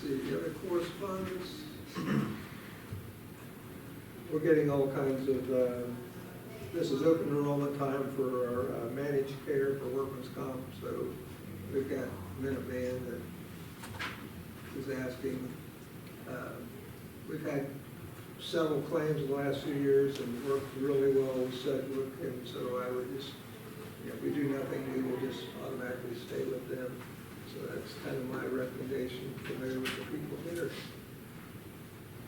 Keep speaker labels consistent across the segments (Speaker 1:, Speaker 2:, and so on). Speaker 1: see, the other correspondence? We're getting all kinds of, uh, this is open enrollment time for our uh, managed care for workman's comp, so we've got Minuteman that is asking. uh, We've had several claims in the last few years and worked really well with Sedgwick, and so I would just, you know, if we do nothing, we will just automatically stay with them. So that's kind of my recommendation for there with the people here.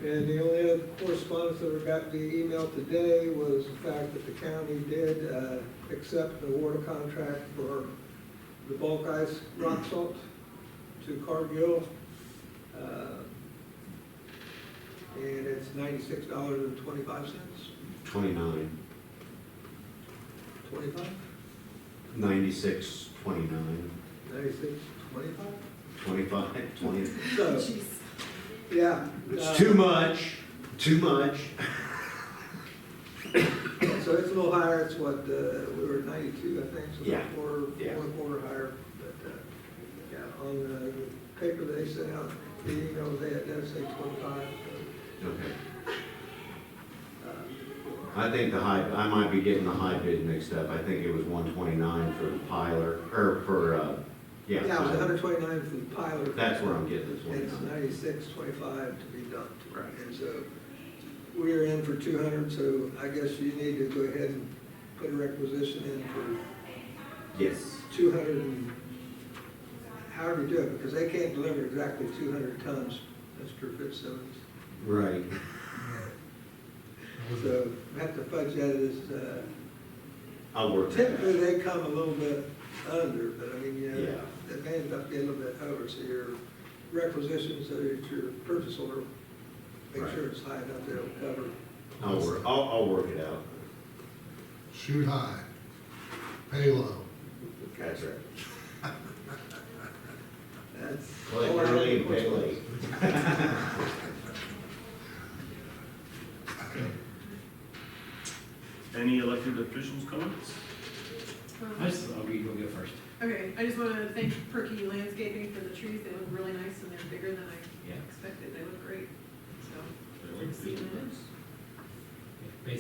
Speaker 1: And the only other correspondence that I got via email today was the fact that the county did uh, accept the water contract for the bulk ice rock salt to Cargill. Uh, And it's ninety-six dollars and twenty-five cents,
Speaker 2: Twenty-nine,
Speaker 1: twenty-five,
Speaker 2: ninety-six, twenty-nine,
Speaker 1: ninety-six, twenty-five?
Speaker 2: twenty-five, twenty.
Speaker 1: So,
Speaker 3: Jeez.
Speaker 1: yeah. uh,
Speaker 2: It's too much, too much.
Speaker 1: So it's a little higher, it's what, uh, we were at ninety-two, I think, so
Speaker 2: Yeah.
Speaker 1: it's four,
Speaker 2: Yeah.
Speaker 1: one quarter higher. But, uh, yeah, on the paper they sent out, the email they had, that say twenty-five.
Speaker 2: Okay,
Speaker 1: uh,
Speaker 2: I think the high, I might be getting the high bid mixed up. I think it was one twenty-nine for the piler, or for, uh,
Speaker 1: Yeah,
Speaker 2: yeah.
Speaker 1: it was
Speaker 2: piler.
Speaker 1: hundred twenty-nine for the pilot.
Speaker 2: That's where I'm getting this
Speaker 1: And it's
Speaker 2: one.
Speaker 1: ninety-six, twenty-five to be dumped.
Speaker 2: Right.
Speaker 1: And so we're in for two hundred, so I guess you need to go ahead and put a requisition in for
Speaker 2: Yes,
Speaker 1: two hundred and, however you do it, because they can't deliver exactly two hundred tons, Mr. Fitzsimmons.
Speaker 2: right.
Speaker 1: So we have to fudge that as, uh,
Speaker 2: I'll work that
Speaker 1: typically
Speaker 2: out.
Speaker 1: they come a little bit under, but I mean, you know,
Speaker 2: Yeah.
Speaker 1: they may end up getting a little bit over, so your requisition, so that your purchase order, make
Speaker 2: Right.
Speaker 1: sure it's high enough that it'll cover.
Speaker 2: I'll work, I'll, I'll work it out.
Speaker 4: Shoot high, pay low.
Speaker 2: That's right.
Speaker 1: That's.
Speaker 2: Play
Speaker 1: all I have.
Speaker 2: early and pay late.
Speaker 5: Any elected officials comments?
Speaker 6: I
Speaker 3: Um,
Speaker 6: just, I'll be, you'll go first.
Speaker 3: Okay, I just want to thank Perky Landscaping for the trees, they look really nice and they're bigger than I
Speaker 6: Yeah.
Speaker 3: expected, they look great, so.
Speaker 6: Basically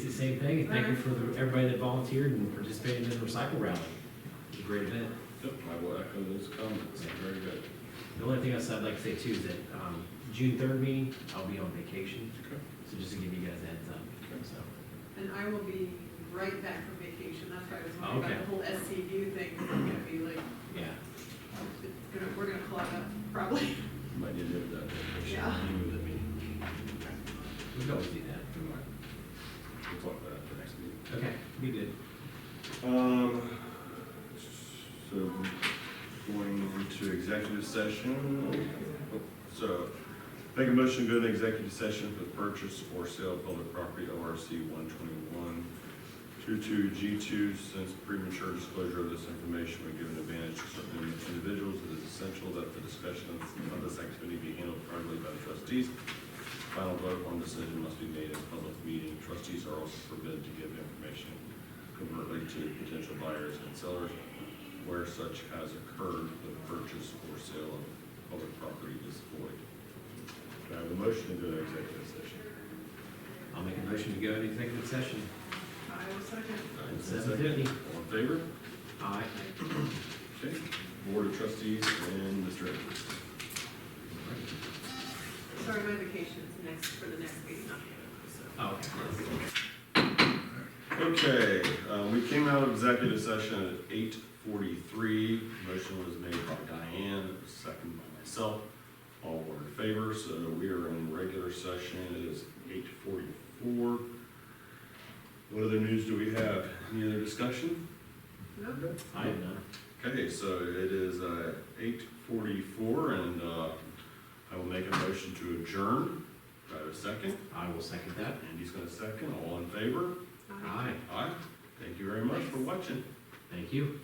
Speaker 6: the same thing, and thank you for the- everybody that volunteered and participated in the recycle rally. It was a Great event.
Speaker 5: Yep, I will echo those comments, very good.
Speaker 6: The only thing else I'd like to say too is that, um, June third meeting, I'll be on vacation, so just to give you guys a heads up, so.
Speaker 3: And I will be right back from vacation, that's why I was wondering
Speaker 6: Okay.
Speaker 3: about the whole SCU thing, it's gonna be like,
Speaker 6: Yeah,
Speaker 3: it's gonna, we're gonna clog up, probably.
Speaker 5: Might need to have that. vacation.
Speaker 3: Yeah.
Speaker 5: You with me.
Speaker 6: we can always do that.
Speaker 5: Never mind. We'll talk about it at the next meeting.
Speaker 6: Okay, be good.
Speaker 5: Um, so going into executive session. So make a motion to go into executive session for the purchase or sale of public property, ORC one twenty-one two-two G two, since premature disclosure of this information would give an advantage to certain individuals, it is essential that the discussion of this activity be handled privately by the trustees. Final vote on decision must be made in public meeting. Trustees are also forbidden to give information covertly to potential buyers and sellers where such has occurred, the purchase or sale of public property is void. Do I have a motion to go to executive session?
Speaker 6: I'll make a motion to go into executive session.
Speaker 3: I will second.
Speaker 5: Nine,
Speaker 6: Seven
Speaker 5: second.
Speaker 6: fifty.
Speaker 5: All in favor?
Speaker 6: Aye.
Speaker 5: Okay. Board of trustees and Mr. Edwards.
Speaker 3: Sorry, my vacation is next, for the next week, not the other, so.
Speaker 6: Oh, okay.
Speaker 5: Okay, uh, we came out of executive session at eight forty-three. Motion was made by Diane, second by myself. All were in favor, so we are in regular session. It is eight forty-four. What other news do we have? Any other discussion?
Speaker 3: Nope.
Speaker 6: I have none.
Speaker 5: Okay, so it is uh, eight forty-four and uh, I will make a motion to adjourn. Do I have a second?
Speaker 6: I will second that.
Speaker 5: Andy's gonna second. All in favor?
Speaker 3: Aye.
Speaker 6: Aye,
Speaker 5: Aye. Thank you very much for watching.
Speaker 6: thank you.